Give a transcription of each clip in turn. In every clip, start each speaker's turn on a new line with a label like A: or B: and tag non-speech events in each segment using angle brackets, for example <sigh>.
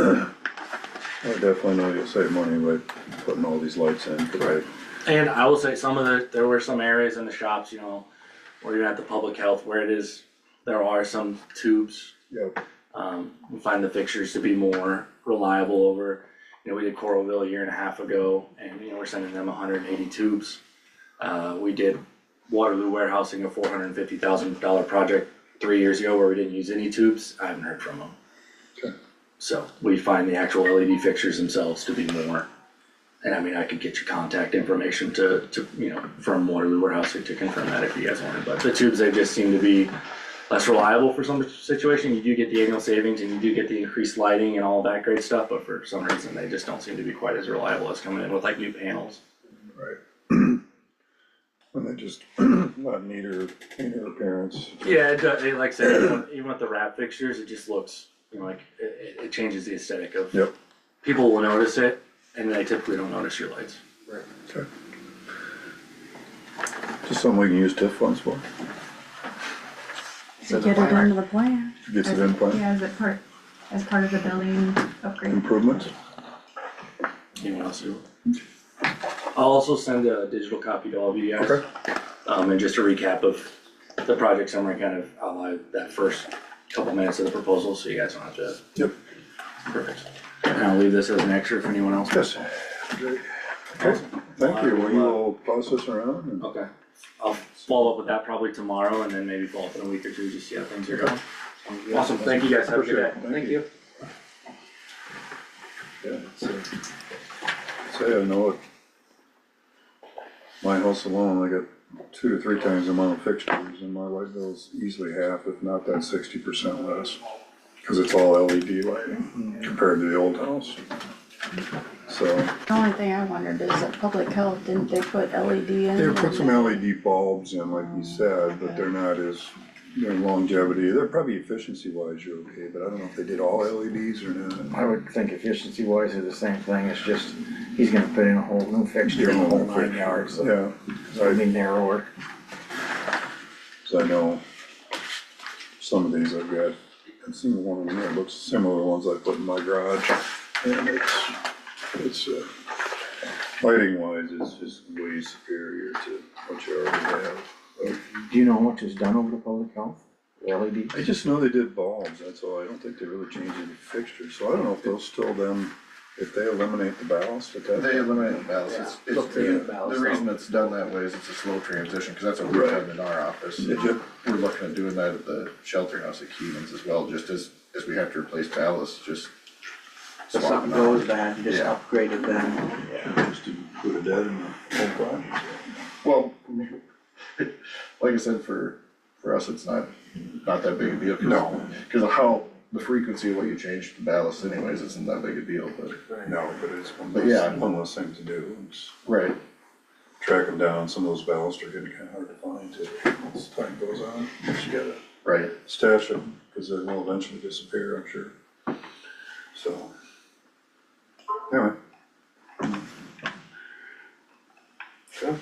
A: I definitely know you'll save money by putting all these lights in, 'cause I-
B: And I will say some of the, there were some areas in the shops, you know, where you're at the public health, where it is, there are some tubes.
A: Yep.
B: Um, we find the fixtures to be more reliable over, you know, we did Coralville a year and a half ago and, you know, we're sending them hundred and eighty tubes. Uh, we did Waterloo warehousing, a four hundred and fifty thousand dollar project three years ago where we didn't use any tubes. I haven't heard from them. So we find the actual LED fixtures themselves to be more and I mean, I could get your contact information to, to, you know, from Waterloo Warehouse to confirm that if you guys wanted, but the tubes, they just seem to be less reliable for some situation, you do get the annual savings and you do get the increased lighting and all that great stuff, but for some reason, they just don't seem to be quite as reliable as coming in with like new panels.
A: Right. <clears throat> And they just, <clears throat> not neater, neater appearance.
B: Yeah, it does, it- like I said, even with- even with the wrap fixtures, it just looks, you know, like, it, it- it changes the aesthetic of.
A: Yep.
B: People will notice it, and they typically don't notice your lights.
A: Okay. Just something we can use TIF funds for,
C: To get it into the plan.
A: gets it in plan,
C: Yeah, as it part, as part of the building upgrade.
A: improvements,
B: Anyone else who? I'll also send a digital copy to all of you guys.
A: Okay.
B: Um, and just a recap of the project summary, kind of outline that first couple minutes of the proposal, so you guys don't have to.
A: Yep.
B: Perfect. And I'll leave this as an extra if anyone else.
A: yes. Thank you, will you all pass this around and?
B: Okay, I'll follow up with that probably tomorrow and then maybe follow up in a week or two, just see how things are going. Awesome, thank you guys, have a good day.
A: Thank you. Yeah, so, so I know it. My house alone, I got two to three times the amount of fixtures and my light bill's easily half, if not that sixty percent less. Cause it's all LED lighting compared to the old house. So,
C: The only thing I wondered is that public health, didn't they put LED in?
A: they put some LED bulbs in, like you said, but they're not as, their longevity, they're probably efficiency wise, you're okay, but I don't know if they did all LEDs or not.
D: I would think efficiency wise is the same thing, it's just, he's gonna put in a whole new fixture, a whole nine yards, so
A: Yeah,
D: it'll be narrower.
A: so I know some of these I've got, I've seen one of them that looks similar to ones I put in my garage. And it's, it's, uh, lighting wise is just way superior to what you already have.
D: Do you know how much is done over the public health, LED?
A: I just know they did bulbs, that's all, I don't think they really changed any fixtures, so I don't know if they'll still then, if they eliminate the ballast at that.
E: They eliminate the ballast, it's, it's,
A: Yeah.
E: the reason it's done that way is it's a slow transition, cause that's what
A: Right.
E: we're having in our office.
A: Did you?
E: We're looking at doing that at the shelter house at Keevan's as well, just as, as we have to replace ballast, just.
F: If
E: swap
F: something
E: them out.
F: goes bad, you just
E: Yeah.
F: upgrade it then.
A: Just included that in the whole project.
E: Well, <laughs> like I said, for, for us, it's not, not that big a deal. 'cause-
A: No.
E: Cause of how, the frequency of what you change the ballast anyways, isn't that big a deal, but,
A: No, but it's one
E: But
A: less,
E: yeah.
A: one less thing to do, it's
E: right,
A: track them down, some of those ballasts are getting kinda hard to find too, as time goes on, but you gotta
E: right.
A: stash them, cause they will eventually disappear, I'm sure. So, anyway. Okay.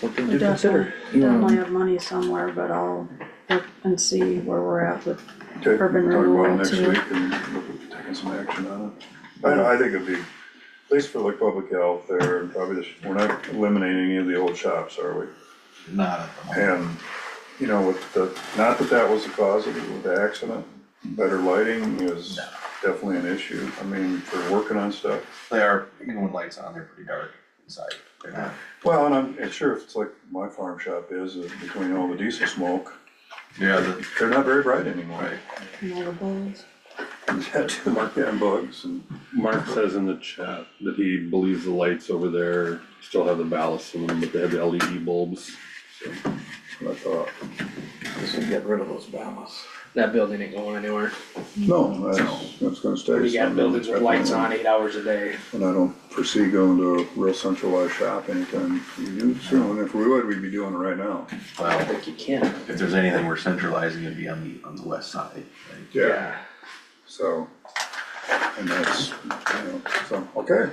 D: Something
A: E
C: We definitely,
D: to consider.
C: definitely have money somewhere, but I'll look and see where we're at with,
A: Okay, talk
C: Urban renewal
A: about it next
C: too.
A: week and look at taking some action on it. I, I think it'd be, at least for like public health there, and probably this, we're not eliminating any of the old shops, are we?
E: Not at the
A: And, you know, with the, not that that was the cause of it, with the accident, better lighting is definitely an issue. I mean, for working on stuff.
G: They are, even when lights on, they're pretty dark inside. They're not,
A: Well, and I'm, and sure, if it's like my farm shop is, uh, between all the diesel smoke,
G: yeah, the,
A: they're not very bright anymore.
G: right,
C: you know, the bulls.
A: And bugs and,
H: Mark says in the chat that he believes the lights over there still have the ballast in them, but they have the LED bulbs. So
A: I thought,
D: We should get rid of those ballasts.
I: That building ain't going anywhere.
A: no, that's, that's gonna stay.
I: You got buildings with lights on eight hours a day.
A: And I don't foresee going to a real centralized shop anytime soon. And if we would, we'd be doing it right now.
I: I
G: well,
I: think you can.
G: if there's anything we're centralizing, it'd be on the, on the west side, right?
A: So, and that's, you know, so, okay,